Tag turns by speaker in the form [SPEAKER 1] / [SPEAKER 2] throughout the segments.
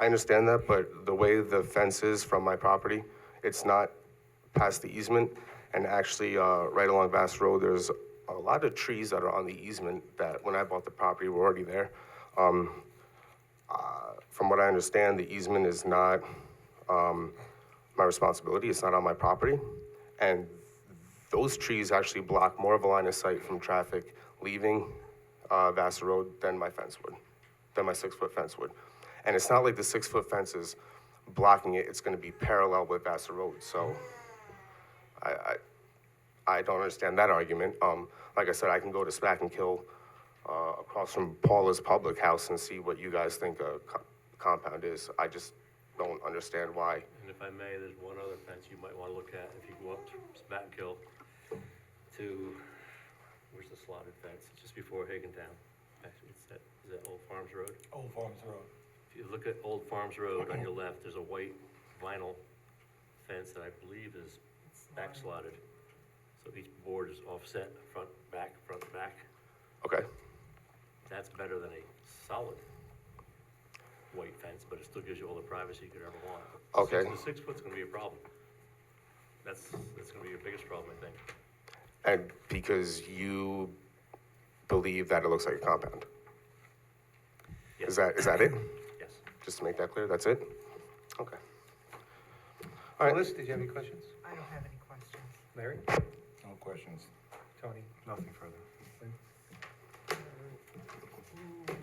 [SPEAKER 1] I understand that, but the way the fence is from my property, it's not past the easement. And actually, uh, right along Bass Road, there's a lot of trees that are on the easement that when I bought the property were already there. Um, uh, From what I understand, the easement is not um, my responsibility, it's not on my property. And those trees actually block more of a line of sight from traffic leaving uh, Vassar Road than my fence would, than my six-foot fence would. And it's not like the six-foot fence is blocking it, it's gonna be parallel with Vassar Road, so I, I, I don't understand that argument. Um, like I said, I can go to Smack and Kill, uh, across from Paula's Public House and see what you guys think a co- compound is. I just don't understand why.
[SPEAKER 2] And if I may, there's one other fence you might wanna look at if you go up to Spatkill to, where's the slotted fence? It's just before Higgintown. Actually, it's that, is that Old Farms Road?
[SPEAKER 3] Old Farms Road.
[SPEAKER 2] If you look at Old Farms Road on your left, there's a white vinyl fence that I believe is back slotted. So each board is offset, front, back, front, back.
[SPEAKER 1] Okay,
[SPEAKER 2] That's better than a solid white fence, but it still gives you all the privacy you could ever want.
[SPEAKER 1] Okay.
[SPEAKER 2] Six- The six foot's gonna be a problem. That's, that's gonna be your biggest problem, I think.
[SPEAKER 1] and because you believe that it looks like a compound? Is that, is that it?
[SPEAKER 2] Yes.
[SPEAKER 1] Just to make that clear, that's it? Okay.
[SPEAKER 4] Melissa, did you have any questions?
[SPEAKER 5] I don't have any questions.
[SPEAKER 4] Larry?
[SPEAKER 3] No questions.
[SPEAKER 4] Tony? Nothing further.
[SPEAKER 6] No,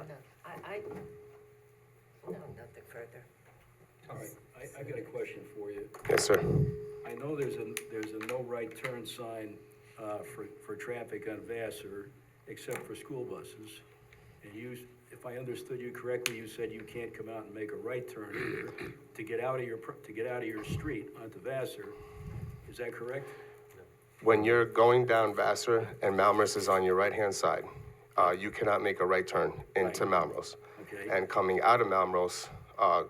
[SPEAKER 6] I, I, no, nothing further.
[SPEAKER 4] All right.
[SPEAKER 7] I, I got a question for you.
[SPEAKER 1] Yes, sir.
[SPEAKER 7] I know there's a, there's a no right turn sign, uh, for, for traffic on Vassar, except for school buses. And you, s- if I understood you correctly, you said you can't come out and make a right turn either to get out of your, pro- to get out of your street onto Vassar. Is that correct?
[SPEAKER 1] When you're going down Vassar and Malmrose is on your right-hand side, uh, you cannot make a right turn into Malmrose.
[SPEAKER 7] Okay.
[SPEAKER 1] And coming out of Malmrose, uh,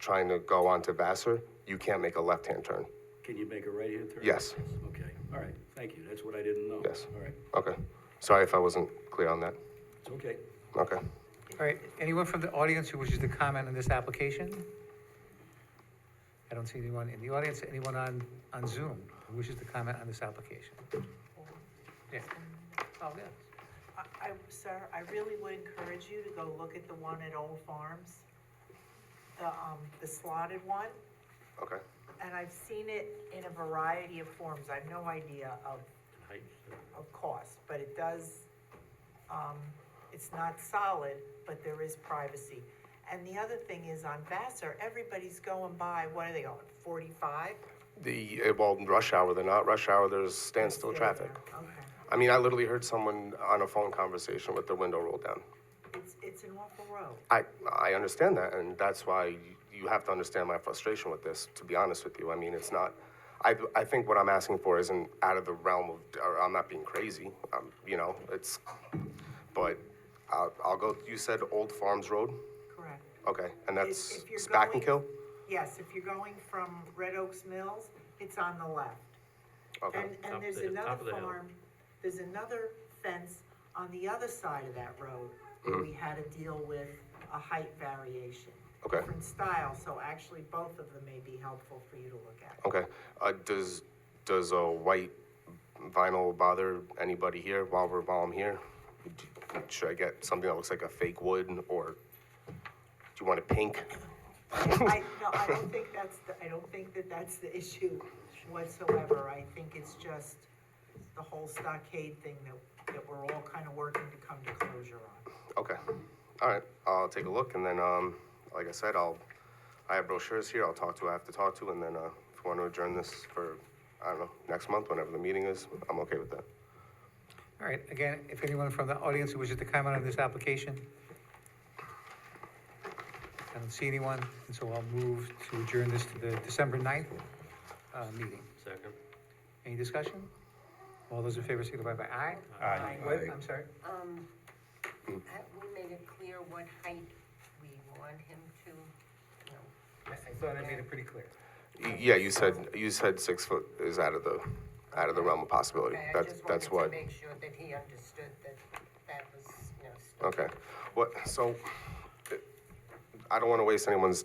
[SPEAKER 1] trying to go onto Vassar, you can't make a left-hand turn.
[SPEAKER 7] Can you make a right hand turn?
[SPEAKER 1] Yes.
[SPEAKER 7] Okay, all right, thank you. That's what I didn't know.
[SPEAKER 1] Yes.
[SPEAKER 7] All right,
[SPEAKER 1] Okay. Sorry if I wasn't clear on that.
[SPEAKER 7] it's okay.
[SPEAKER 1] Okay.
[SPEAKER 4] All right, anyone from the audience who wishes to comment on this application? I don't see anyone in the audience, anyone on, on Zoom who wishes to comment on this application? Yeah. Oh, yes.
[SPEAKER 5] I- I, sir, I really would encourage you to go look at the one at Old Farms, the, um, the slotted one,
[SPEAKER 1] Okay.
[SPEAKER 5] and I've seen it in a variety of forms, I have no idea of,
[SPEAKER 2] And height, so-
[SPEAKER 5] of cost, but it does, um, it's not solid, but there is privacy. And the other thing is on Vassar, everybody's going by, what are they going, forty-five?
[SPEAKER 1] The, eh, well, rush hour, they're not rush hour, there's standstill traffic.
[SPEAKER 5] Okay.
[SPEAKER 1] I mean, I literally heard someone on a phone conversation with their window rolled down.
[SPEAKER 5] It's, it's an awful road.
[SPEAKER 1] I, I understand that, and that's why you have to understand my frustration with this, to be honest with you. I mean, it's not, I, I think what I'm asking for isn't out of the realm of, or I'm not being crazy, um, you know, it's, but I'll, I'll go, you said Old Farms Road?
[SPEAKER 5] Correct.
[SPEAKER 1] Okay, and
[SPEAKER 5] If-
[SPEAKER 1] that's
[SPEAKER 5] if you're
[SPEAKER 1] Spack and Kill?
[SPEAKER 5] going- Yes, if you're going from Red Oaks Mills, it's on the left.
[SPEAKER 1] Okay,
[SPEAKER 5] And,
[SPEAKER 2] Top of
[SPEAKER 5] and there's
[SPEAKER 2] the- top of
[SPEAKER 5] another
[SPEAKER 2] the hill.
[SPEAKER 5] farm, there's another fence on the other side of that road
[SPEAKER 1] Mm-hmm.
[SPEAKER 5] where we had to deal with a height variation.
[SPEAKER 1] Okay.
[SPEAKER 5] Different style, so actually both of them may be helpful for you to look at.
[SPEAKER 1] okay. Uh, does, does a white vinyl bother anybody here while we're, while I'm here? Should I get something that looks like a fake wood, or do you want it pink?
[SPEAKER 5] I, no, I don't think that's, the- I don't think that that's the issue whatsoever. I think it's just the whole stockade thing that, that we're all kind of working to come to closure on.
[SPEAKER 1] Okay, all right, I'll take a look, and then, um, like I said, I'll, I have brochures here, I'll talk to who I have to talk to, and then, uh, if we want to adjourn this for, I don't know, next month, whenever the meeting is, I'm okay with that.
[SPEAKER 4] All right, again, if anyone from the audience who wishes to comment on this application? I don't see anyone, and so I'll move to adjourn this to the December 9th uh, meeting.
[SPEAKER 2] Second.
[SPEAKER 4] Any discussion? All those in favor signify by aye.
[SPEAKER 3] Aye.
[SPEAKER 4] What? I'm sorry?
[SPEAKER 6] Um, have we made it clear what height we want him to, no,
[SPEAKER 4] I I thought I made it pretty clear.
[SPEAKER 1] Y- Yeah, you said, you said six foot is out of the, out of the realm of possibility,
[SPEAKER 6] Okay, I
[SPEAKER 1] that's,
[SPEAKER 6] just
[SPEAKER 1] that's
[SPEAKER 6] wanted
[SPEAKER 1] what,
[SPEAKER 6] to make sure that he understood that that was, you know, still
[SPEAKER 1] okay. What, so, I don't want to waste anyone's time.